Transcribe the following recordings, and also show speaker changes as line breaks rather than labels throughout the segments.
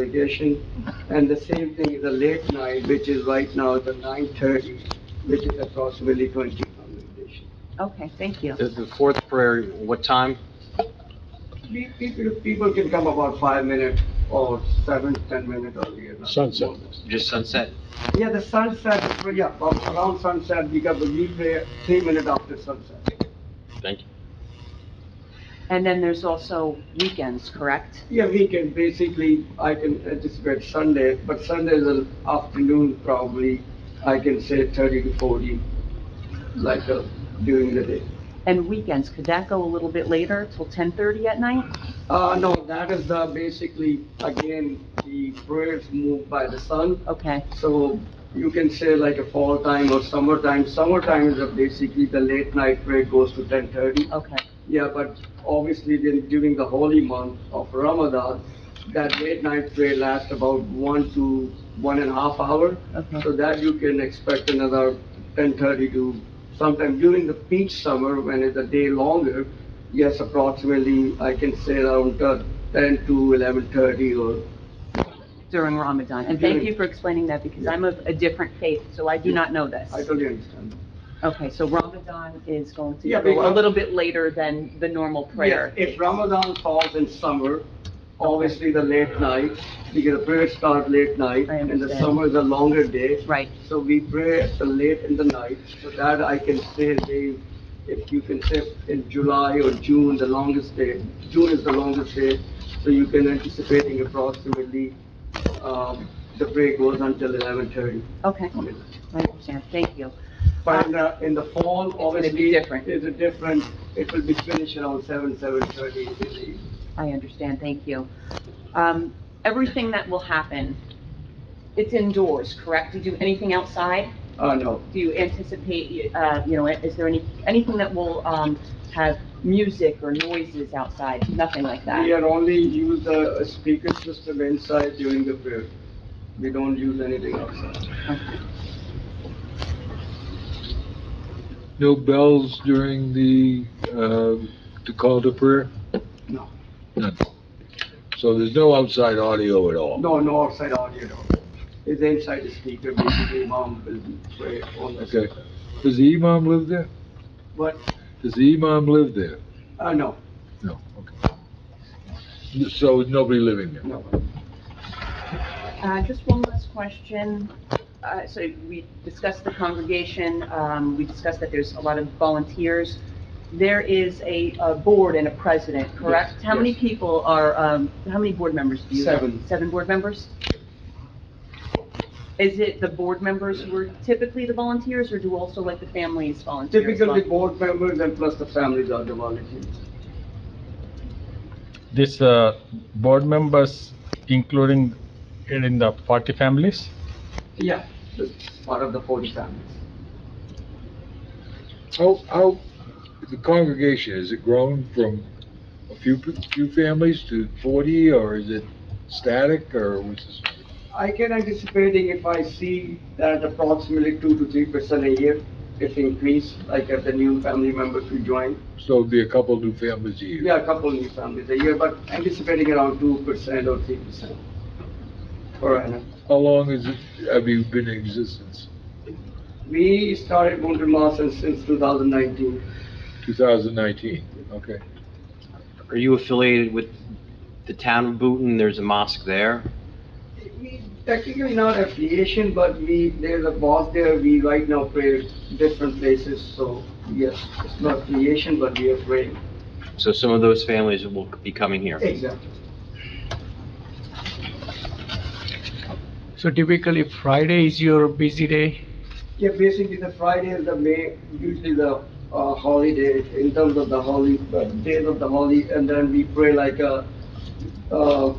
congregation. And the same thing is a late night, which is right now the nine thirty, which is approximately twenty congregation.
Okay, thank you.
The, the fourth prayer, what time?
Pe- People, people can come about five minutes or seven, ten minutes earlier.
Sunset.
Just sunset?
Yeah, the sunset, yeah, around sunset, because we pray three minutes after sunset.
Thank you.
And then there's also weekends, correct?
Yeah, we can basically, I can anticipate Sunday, but Sunday is an afternoon probably, I can say thirty to forty, like uh, during the day.
And weekends, could that go a little bit later, till 10:30 at night?
Uh, no, that is the, basically, again, the prayers moved by the sun.
Okay,
So you can say like a fall time or summertime. Summertime is uh, basically the late night prayer goes to ten thirty.
okay,
Yeah, but obviously then during the holy month of Ramadan, that late night prayer lasts about one to one and a half hour.
Okay.
So that you can expect another ten thirty to sometime during the peak summer when it's a day longer. Yes, approximately, I can say around uh, ten to eleven thirty or,
during Ramadan. And thank you for explaining that, because I'm of a different faith, so I do not know this.
I totally understand.
Okay, so Ramadan is going to
Yeah,
go a
because-
little bit later than the normal prayer.
Yes, If Ramadan falls in summer, obviously the late night, because the prayers start late night.
I
And the
understand.
summer is a longer day.
Right,
So we pray at the late in the night, so that I can say, they, if you can say in July or June, the longest day, June is the longest day, so you can anticipating approximately, um, the break goes until eleven thirty.
okay, I understand, thank you.
But in the, in the fall,
gonna be
obviously,
different.
it's a different, it will be finished around seven, seven thirty in the evening.
I understand, thank you. Um, Everything that will happen, it's indoors, correct? Do you do anything outside?
Uh, no,
Do you anticipate, uh, you know, is there any, anything that will um, have music or noises outside? Nothing like
we
that?
are only use the speaker system inside during the prayer. We don't use anything outside.
No bells during the, uh, the call to prayer?
No.
None. So there's no outside audio at all?
No, no outside audio, no. It's inside the speaker, basically, mom will play on the
Okay.
speaker.
Does the imam live there?
But,
Does the imam live there?
uh, no,
No, okay. So nobody living there?
no.
Uh, Just one last question. Uh, So we discussed the congregation, um, we discussed that there's a lot of volunteers. There is a a board and a president, correct?
Yes,
How many
yes.
people are, um, how many board members do you have?
Seven.
Seven board members? Is it the board members who are typically the volunteers, or do also like the families volunteer? as well?
Typically, board members and plus the families are the volunteers.
This uh, board members, including it in the party families,
Yeah, it's part of the forty families.
How, how, the congregation, has it grown from a few, pe- few families to 40, or is it static, or what's this?
I can anticipating if I see that approximately two to three percent a year, if increase, like if the new family members will join.
So it'd be a couple new families a year?
Yeah, a couple new families a year, but anticipating around two percent or three percent per annum.
How long has it, have you been in existence?
We started Mountain Moss since, since 2019.
2019, okay.
Are you affiliated with the town of Booton? There's a mosque there.
We Technically not affiliation, but we, there's a boss there, we right now pray different places, so yes, it's not affiliation, but we are praying.
So some of those families will be coming here.
Exactly.
So typically Friday is your busy day.
Yeah, basically the Friday is the May, usually the uh, holiday, in terms of the holy, uh, days of the holy, and then we pray like a, uh,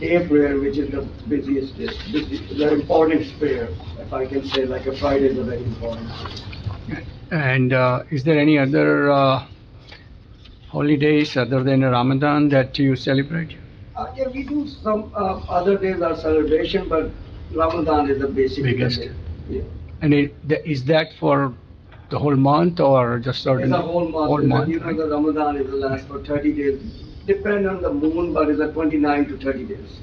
day prayer, which is the busiest, day, busy- the important prayer, if I can say, like a Friday is a very important.
And uh, is there any other uh, holidays other than Ramadan that you celebrate?
Uh, yeah, we do some, uh, other days are celebration, but Ramadan is the basic. day.
Biggest.
Yeah.
And it- th- is that for the whole month or just
It's
certain?
a whole month.
Whole
and then You
month,
know,
right?
the Ramadan is the last for thirty days, depend on the moon, but it's a twenty-nine to thirty days.